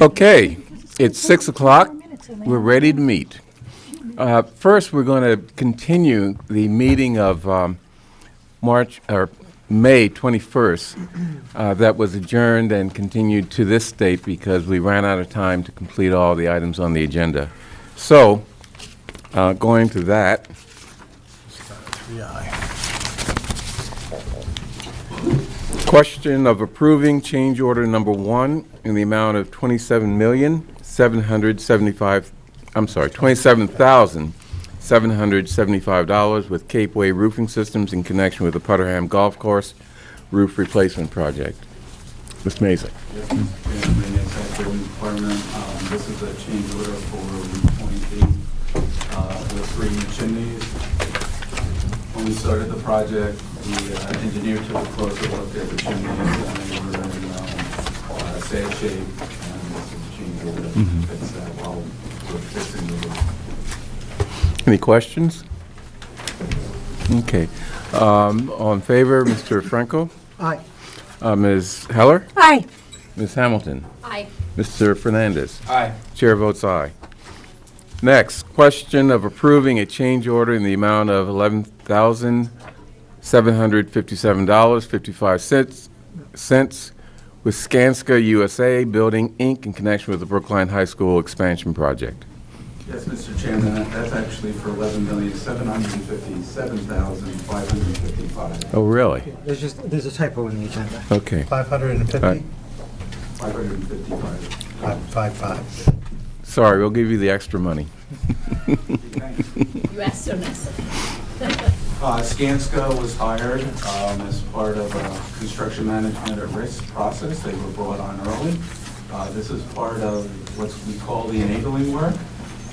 Okay, it's six o'clock. We're ready to meet. Uh, First, we're going to continue the meeting of um, March, or May 21st, uh, that was adjourned and continued to this date because we ran out of time to complete all the items on the agenda. So, uh, going to that, Question of approving change order number one in the amount of twenty-seven million, seven hundred seventy-five, I'm sorry, twenty-seven thousand, seven hundred seventy-five dollars with Cape Way Roofing Systems in connection with the Putterham Golf Course Roof Replacement Project. Ms. Mason. Yes, Mr. Chairman, Randy Sack, Building Department. Um, This is a change order for repointing uh, the three chimneys. When we started the project, the uh, engineer took a closer look at the chimneys and they were in um, uh, sad shape. And this is a change order to fix that while we're fixing the roof. Any questions? Okay. Um, All in favor, Mr. Franco? Aye. Uh, Ms. Heller? Aye. Ms. Hamilton? Aye. Mr. Fernandez? Aye. Chair votes aye. Next, question of approving a change order in the amount of $11,757.55 cents with Skanska USA Building, Inc. in connection with the Brookline High School expansion project. Yes, Mr. Chairman, that- that's actually for eleven million, seven hundred and fifty-seven thousand, five hundred and fifty-five. Oh, really? There's just, there's a typo in the agenda. Okay. 550? Five hundred and fifty-five. Five, five, five. Sorry, we'll give you the extra money. You asked so nicely. Uh, Skanska was hired um, as part of a construction management at risk process. They were brought on early. Uh, This is part of what we call the enabling work,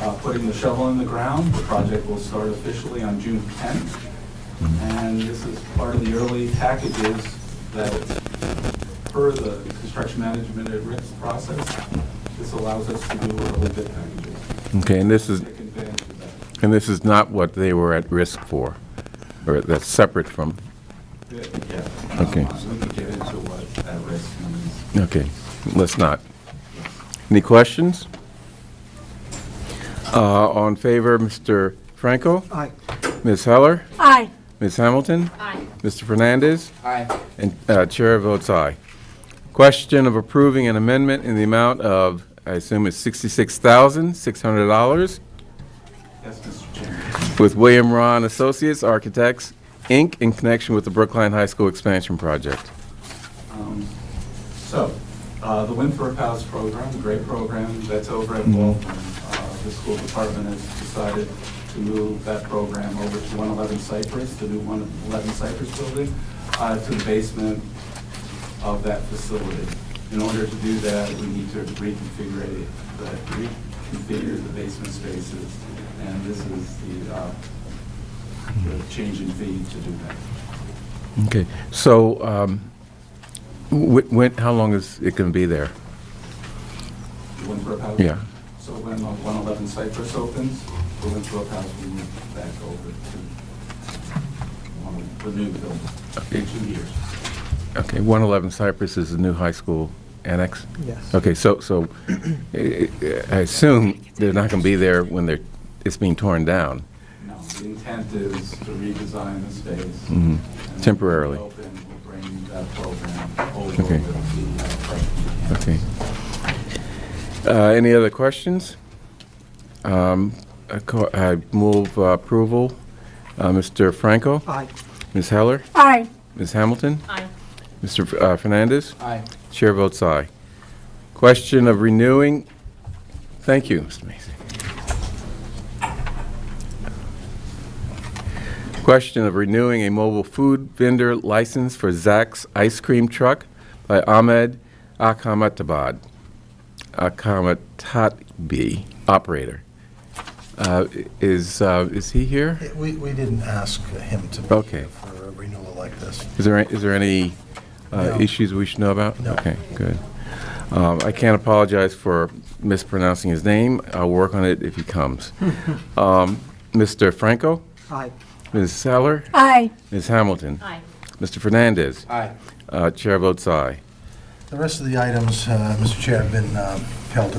uh, putting the shovel in the ground. The project will start officially on June 10th. And this is part of the early packages that, per the construction management at risk process, this allows us to do early bid packages. Okay, and this is, Take advantage of that. and this is not what they were at risk for, or that's separate from, Yeah. Okay. Um, We can get into what at risk means. okay, let's not. Any questions? Uh, All in favor, Mr. Franco? Aye. Ms. Heller? Aye. Ms. Hamilton? Aye. Mr. Fernandez? Aye. And uh, Chair votes aye. Question of approving an amendment in the amount of, I assume it's $66,600 Yes, Mr. Chairman. with William Ron Associates Architects, Inc., in connection with the Brookline High School expansion project. Um, So, uh, the Winthrop House program, a great program, that's over at Waltham. Uh, The school department has decided to move that program over to 111 Cypress, the new 111 Cypress building, uh, to the basement of that facility. In order to do that, we need to reconfigure it, but reconfigure the basement spaces, and this is the uh, the change in fee to do that. Okay, so um, wh- when, how long is it going to be there? The Winthrop House? Yeah. So when the 111 Cypress opens, the Winthrop House will move back over to um, the new building in two years. Okay, 111 Cypress is the new high school annex? Yes. Okay, so, so eh, eh, I assume they're not going to be there when they're, it's being torn down? Now, the intent is to redesign the space. Mhm. and Temporarily. Open, we'll bring that program over Okay. with the uh, freshman campus. Okay. Uh, Any other questions? Um, I co- I move uh, approval. Uh, Mr. Franco? Aye. Ms. Heller? Aye. Ms. Hamilton? Aye. Mr. F- uh, Fernandez? Aye. Chair votes aye. Question of renewing, thank you, Mr. Mason. Question of renewing a mobile food vendor license for Zack's Ice Cream Truck by Ahmed Akhamatabad, Akhamatatbi, operator. Uh, i- Is, uh, is he here? It- We, we didn't ask him to be Okay. here for a renewal like this. Is there, is there any uh, No. issues we should know about? No. Okay, good. Um, I can't apologize for mispronouncing his name. I'll work on it if he comes. Um, Mr. Franco? Aye. Ms. Heller? Aye. Ms. Hamilton? Aye. Mr. Fernandez? Aye. Uh, Chair votes aye. The rest of the items, uh, Mr. Chair, have been um, held